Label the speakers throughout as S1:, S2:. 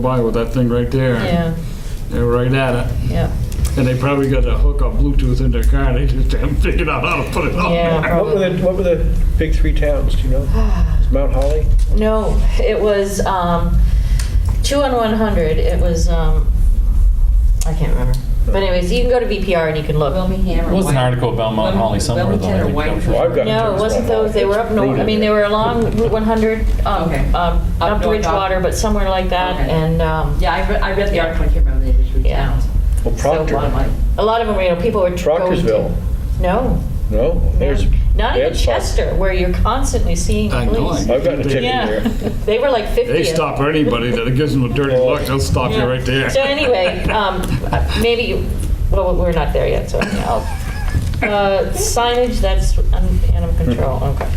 S1: by with that thing right there.
S2: Yeah,
S1: They were right at it.
S2: yeah,
S1: And they probably got a hook on Bluetooth in their car. They just haven't figured out how to put it on.
S2: yeah.
S3: What were the,
S2: probably.
S3: what were the big three towns, do you know? Is Mount Holly?
S2: No, it was um, two on one hundred. It was um, I can't remember. But anyways, you can go to VPR and you can look.
S4: Wilmington or
S5: There was an
S4: White-
S5: article about Mount Holly somewhere, though, I
S4: Wilmington or
S5: think,
S4: White-
S5: I'm sure.
S3: Well, I've got
S2: No, it wasn't those. They were up north. I mean, they were along Route one hundred, um,
S4: Okay.
S2: um,
S4: Up
S2: up to
S4: north, up-
S2: Ridgewater, but somewhere like that.
S4: Okay.
S2: And um,
S4: Yeah, I read, I read the
S2: Yeah.
S4: article, I can't remember the individual
S2: Yeah.
S4: towns.
S3: Well,
S4: So one,
S3: Proctor,
S4: like,
S2: a lot of them, you know, people were going
S3: Proctorsville,
S2: to. No,
S3: no, there's.
S2: not
S3: they
S2: even
S3: had some-
S2: Chester, where you're constantly seeing
S1: I know,
S2: police.
S1: I-
S3: I've gotten a ticket
S2: Yeah,
S3: there.
S2: they were like fifty.
S1: Uh, They stop anybody that gives them a dirty look, they'll stop you right there.
S2: So anyway, um, maybe, you- well, we're not there yet, so I'll, uh, signage, that's un- animal
S1: Hmm.
S2: control, okay.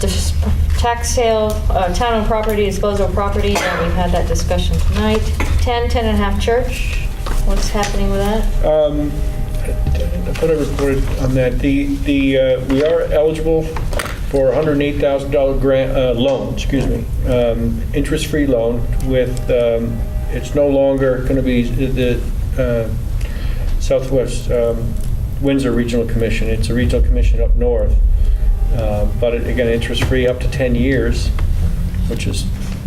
S2: Dis- Tax sale, uh, town and property, disposal of property, and we've had that discussion tonight. 10, 10 and a half church, what's happening with that?
S3: Um, I thought I reported on that. The, the, uh, we are eligible for $108,000 grant, uh, loan, excuse me, um, interest-free loan with, um, it's no longer going to be the uh, Southwest um, Windsor Regional Commission. It's a regional commission up north. Uh, But it- again, interest-free up to 10 years, which is,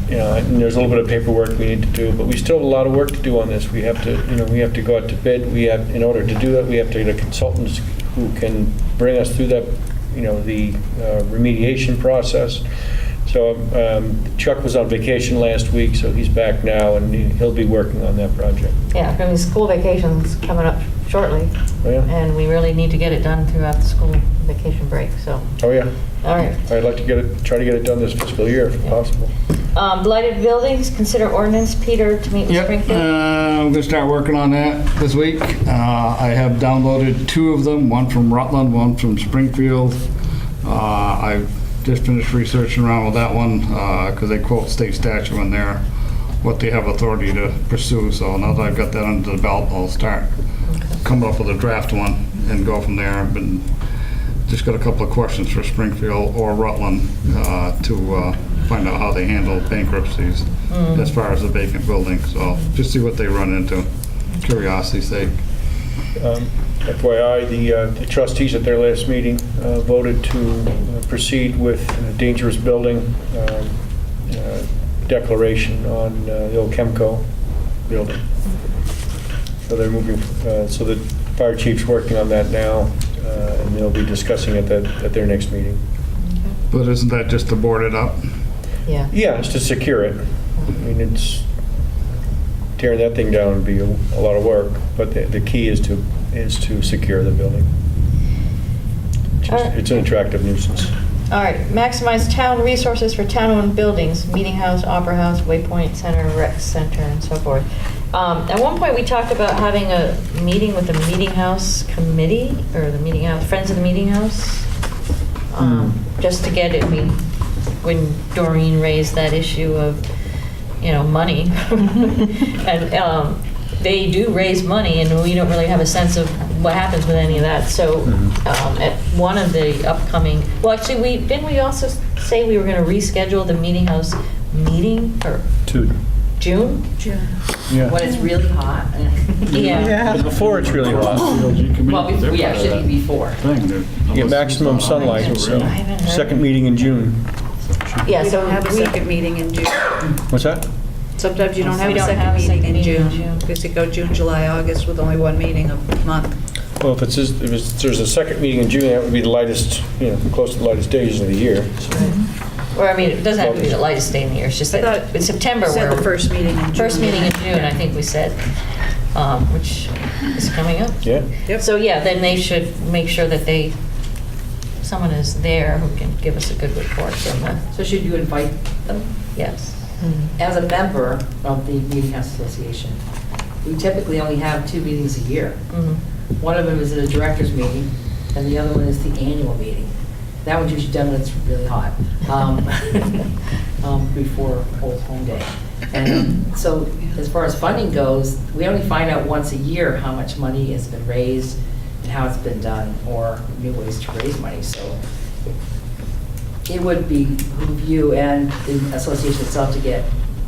S3: you know, and there's a little bit of paperwork we need to do, but we still have a lot of work to do on this. We have to, you know, we have to go out to bid, we have, in order to do that, we have to get consultants who can bring us through that, you know, the uh, remediation process. So um, Chuck was on vacation last week, so he's back now, and he- he'll be working on that project.
S2: Yeah, I mean, school vacation's coming up shortly,
S3: Oh, yeah?
S2: and we really need to get it done throughout the school vacation break, so,
S3: Oh, yeah.
S2: all right.
S3: I'd like to get it, try to get it done this fiscal year if possible.
S2: Um, Blighted buildings, consider ordinance, Peter, to meet with
S1: Yep, uh,
S2: Springfield.
S1: I'm gonna start working on that this week. Uh, I have downloaded two of them, one from Rutland, one from Springfield. Uh, I've just finished researching around with that one, because they quote state statute in there, what they have authority to pursue, so now that I've got that under the belt, I'll start coming up with a draft one and go from there. I've been, just got a couple of questions for Springfield or Rutland uh, to uh, find out how they handle bankruptcies as far as the vacant building, so just see what they run into, curiosity's sake.
S3: Um, FYI, the uh, the trustees at their last meeting uh, voted to uh, proceed with a dangerous building um, uh, declaration on uh, the old Chemco building. So they're moving, uh, so the fire chief's working on that now, uh, and they'll be discussing it at at their next meeting.
S1: But isn't that just to board it up? Uh,
S2: Yeah.
S3: Yeah, it's to secure it. I mean, it's, tearing that thing down would be a a lot of work, but the the key is to, is to secure the building. It's
S2: All
S3: just-
S2: right.
S3: It's an attractive nuisance.
S2: All right, maximize town resources for town-owned buildings, Meeting House, Opera House, Waypoint Center, Rec Center, and so forth. Um, At one point, we talked about having a meeting with the Meeting House Committee, or the Meeting House, Friends of the Meeting House, um, just to get it, we, when Doreen raised that issue of, you know, money. And um, they do raise money, and we don't really have a sense of what happens with any of that. So um, at one of the upcoming, well, actually, we, didn't we also say we were going to reschedule the Meeting House meeting for
S3: Two.
S2: June?
S4: When it's really hot.
S2: Yeah.
S3: Before it's really hot.
S4: Well, bef- we actually be before.
S3: Yeah, maximum sunlight, so,
S2: I haven't heard.
S3: second meeting in June.
S2: Yeah,
S6: You
S2: so
S6: don't have a
S2: we-
S6: second meeting in June.
S3: What's that?
S6: Sometimes you don't
S2: We
S6: have a
S2: don't have
S6: second
S2: a
S6: meeting
S2: second meeting
S6: in
S2: in June.
S6: June, because you go June, July, August with only one meeting a month.
S3: Well, if it's, just- if it's- there's a second meeting in June, that would be the lightest, you know, close to the lightest days of the year.
S2: Or, I mean, it doesn't have to be the lightest day in the year, it's just
S6: I
S2: that
S6: thought
S2: in September
S6: You said
S2: where
S6: the first meeting in June.
S2: First meeting in June, I think we said, um, which is coming up.
S3: Yeah?
S6: Yep.
S2: So, yeah, then they should make sure that they, someone is there who can give us a good report from the,
S4: So should you invite them?
S2: yes.
S4: As a member of the Meeting House Association, we typically only have two meetings a year.
S2: Mhm.
S4: One of them is at a director's meeting, and the other one is the annual meeting. That one's usually done when it's really hot, um, um, before Old Home Day. And um, so, as far as funding goes, we only find out once a year how much money has been raised and how it's been done, or new ways to raise money, so it would be behoove you and the association itself to get